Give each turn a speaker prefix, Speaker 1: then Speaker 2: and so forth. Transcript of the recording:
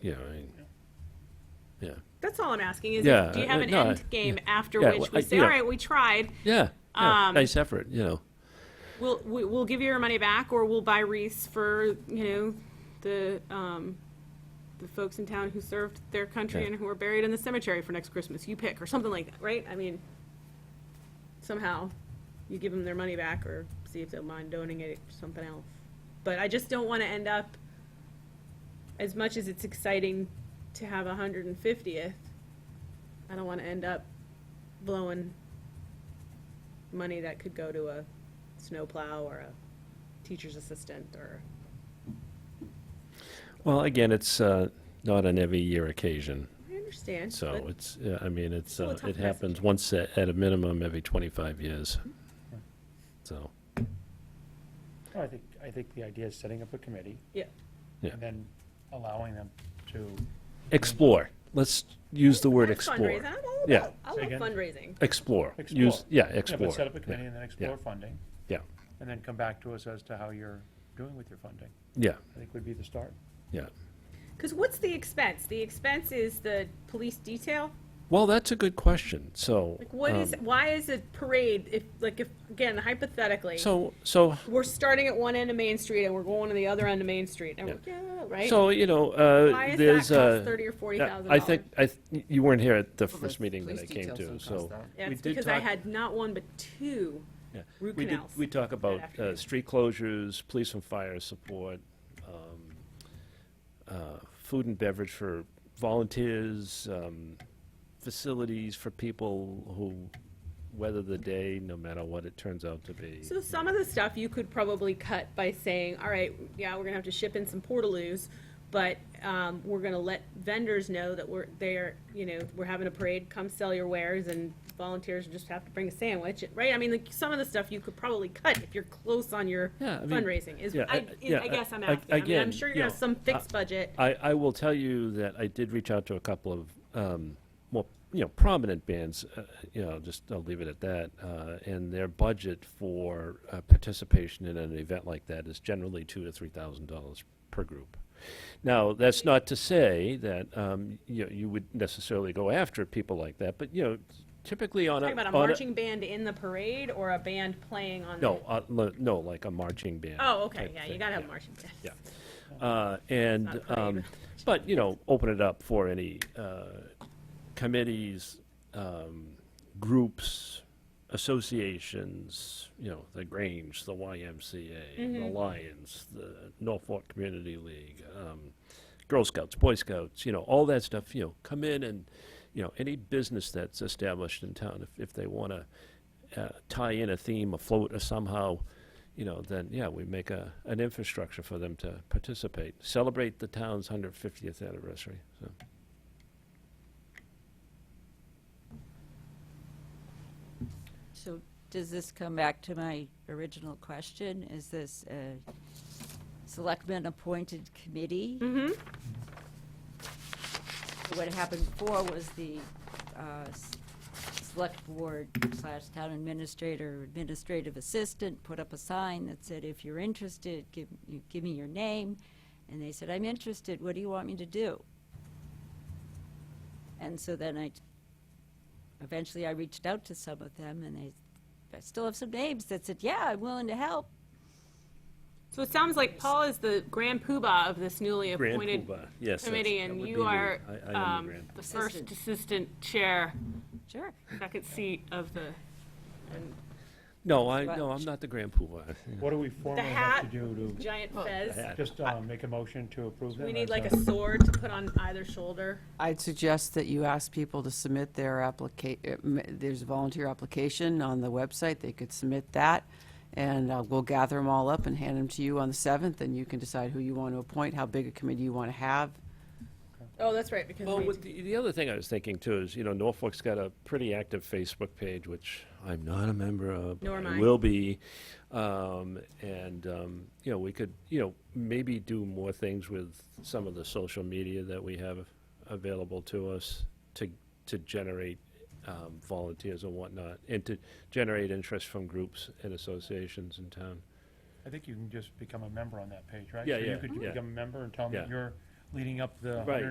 Speaker 1: yeah, I, yeah,
Speaker 2: That's all I'm asking is,
Speaker 1: Yeah,
Speaker 2: do you have
Speaker 1: uh,
Speaker 2: an
Speaker 1: no,
Speaker 2: end game after
Speaker 1: yeah,
Speaker 2: which
Speaker 1: well,
Speaker 2: we
Speaker 1: I-
Speaker 2: say,
Speaker 1: you know-
Speaker 2: all right, we tried,
Speaker 1: yeah, yeah,
Speaker 2: Um,
Speaker 1: nice effort, you know.
Speaker 2: we'll, we- we'll give you your money back or we'll buy wreaths for, you know, the, um, the folks in town who served their country
Speaker 1: Yeah.
Speaker 2: and who are buried in the cemetery for next Christmas, you pick, or something like that, right? I mean, somehow you give them their money back or see if they'll mind donating it to something else. But I just don't want to end up, as much as it's exciting to have a hundred and fiftieth, I don't want to end up blowing money that could go to a snowplow or a teacher's assistant or,
Speaker 1: Well, again, it's uh, not an every year occasion,
Speaker 2: I understand.
Speaker 1: so
Speaker 2: but-
Speaker 1: it's. yeah, I mean, it's
Speaker 2: Still a
Speaker 1: uh,
Speaker 2: tough
Speaker 1: it happens once at, at a minimum every twenty five years. So
Speaker 3: No, I think, I think the idea is setting up a committee
Speaker 2: Yeah,
Speaker 1: Yeah.
Speaker 3: and then allowing them to,
Speaker 1: explore. Let's use the word
Speaker 2: That's
Speaker 1: explore.
Speaker 2: fundraising. I'm all
Speaker 1: Yeah.
Speaker 2: about, I
Speaker 3: Say
Speaker 2: love
Speaker 3: again?
Speaker 2: fundraising.
Speaker 1: Explore.
Speaker 3: Explore.
Speaker 1: Use yeah.
Speaker 3: yeah,
Speaker 1: Explore.
Speaker 3: but set up a committee and then explore funding,
Speaker 1: Yeah.
Speaker 3: and then come back to us as to how you're doing with your funding,
Speaker 1: Yeah.
Speaker 3: I think would be the start.
Speaker 1: Yeah.
Speaker 2: Because what's the expense? The expense is the police detail?
Speaker 1: Well, that's a good question. So um,
Speaker 2: Like, what is, why is a parade, if, like, if, again, hypothetically,
Speaker 1: So so
Speaker 2: we're starting at one end of Main Street and we're going to the other end of Main Street, and we're, yeah, right?
Speaker 1: so you know
Speaker 2: Why
Speaker 1: uh,
Speaker 2: is
Speaker 1: there's
Speaker 2: that
Speaker 1: uh,
Speaker 2: cost thirty or forty
Speaker 1: yeah,
Speaker 2: thousand
Speaker 1: I
Speaker 2: dollars?
Speaker 1: think I th- you weren't here at the
Speaker 4: Well,
Speaker 1: first
Speaker 4: the
Speaker 1: meeting that I
Speaker 4: police
Speaker 1: came
Speaker 4: details
Speaker 1: to.
Speaker 4: don't cost
Speaker 1: So
Speaker 4: that.
Speaker 1: we
Speaker 2: That's
Speaker 1: did
Speaker 2: because I
Speaker 1: talk-
Speaker 2: had not one but two.
Speaker 1: Yeah.
Speaker 2: root
Speaker 1: We did,
Speaker 2: canals
Speaker 1: we talk about uh,
Speaker 2: afternoon.
Speaker 1: street closures, police and fire support, um, uh, food and beverage for volunteers, um, facilities for people who weather the day, no matter what it turns out to be.
Speaker 2: So some of the stuff you could probably cut by saying, all right, yeah, we're gonna have to ship in some portaloos, but, um, we're gonna let vendors know that we're, they're, you know, we're having a parade, come sell your wares, and volunteers just have to bring a sandwich, right? I mean, like, some of the stuff you could probably cut if you're close on your
Speaker 1: Yeah, I mean,
Speaker 2: fundraising, is,
Speaker 1: yeah,
Speaker 2: I,
Speaker 1: I- yeah,
Speaker 2: I guess I'm
Speaker 1: I-
Speaker 2: asking. I mean, I'm
Speaker 1: again,
Speaker 2: sure you
Speaker 1: you
Speaker 2: have
Speaker 1: know,
Speaker 2: some fixed budget.
Speaker 1: I, I will tell you that I did reach out to a couple of um, more, you know, prominent bands. Uh, you know, just I'll leave it at that. Uh, and their budget for uh, participation in an event like that is generally two to three thousand dollars per group. Now, that's not to say that um, you know, you would necessarily go after people like that, but you know, typically on a,
Speaker 2: Talking about a
Speaker 1: on
Speaker 2: marching band in the parade or a band playing on?
Speaker 1: no, uh, le- no, like a marching band.
Speaker 2: Oh, okay,
Speaker 1: type
Speaker 2: yeah, you
Speaker 1: thing,
Speaker 2: gotta have
Speaker 1: yeah.
Speaker 2: a marching band.
Speaker 1: Yeah. Uh, And,
Speaker 2: Not parade,
Speaker 1: um,
Speaker 2: but-
Speaker 1: but, you know, open it up for any uh, committees, um, groups, associations, you know, the Grange, the YMCA, the Lions, the Norfolk Community League, um, Girl Scouts, Boy Scouts, you know, all that stuff, you know, come in and, you know, any business that's established in town, if, if they want to uh, tie in a theme, a float, or somehow, you know, then, yeah, we make a, an infrastructure for them to participate. Celebrate the town's 150th anniversary, so.
Speaker 4: So does this come back to my original question? Is this a selectman-appointed committee?
Speaker 2: Mhm.
Speaker 4: What happened before was the uh, s- select board slash town administrator, administrative assistant put up a sign that said, if you're interested, give, you- give me your name. And they said, I'm interested, what do you want me to do? And so then I, eventually I reached out to some of them and they, I still have some names that said, yeah, I'm willing to help.
Speaker 2: So it sounds like Paul is the grand poobah of this newly
Speaker 1: Grand
Speaker 2: appointed
Speaker 1: poobah, yes. that's-
Speaker 2: committee,
Speaker 1: that
Speaker 2: and
Speaker 1: would
Speaker 2: you
Speaker 1: be me.
Speaker 2: are
Speaker 1: I- I am the
Speaker 2: um,
Speaker 1: grand-
Speaker 2: the first assistant chair,
Speaker 4: Sure.
Speaker 2: second seat of the, and
Speaker 1: No, I,
Speaker 4: But-
Speaker 1: no, I'm not the grand poobah.
Speaker 3: What do we formally have to
Speaker 2: hat.
Speaker 3: do
Speaker 2: giant
Speaker 4: Well,
Speaker 2: fez.
Speaker 3: to,
Speaker 1: hat.
Speaker 3: just uh, make a motion to approve uh, that?
Speaker 2: We
Speaker 3: or
Speaker 2: need
Speaker 3: is
Speaker 2: like
Speaker 3: that-
Speaker 2: a sword to put on either shoulder.
Speaker 5: I'd suggest that you ask people to submit their applica, uh, m- there's a volunteer application on the website, they could submit that, and uh, we'll gather them all up and hand them to you on the 7th, and you can decide who you want to appoint, how big a committee you want to have.
Speaker 2: Oh, that's right, because
Speaker 1: Well,
Speaker 2: we,
Speaker 1: with the, the other thing I was thinking too is, you know, Norfolk's got a pretty active Facebook page, which I'm not a member of. but
Speaker 2: Nor am I.
Speaker 1: Will be, um, and um, you know, we could, you know, maybe do more things with some of the social media that we have available to us to to generate um, volunteers and whatnot, and to generate interest from groups and associations in town.
Speaker 3: I think you can just become a member on that page, right?
Speaker 1: Yeah,
Speaker 3: So
Speaker 1: yeah,
Speaker 3: You could
Speaker 1: yeah.
Speaker 3: become a member and tell them that
Speaker 1: Yeah.
Speaker 3: you're leading up the
Speaker 1: Right.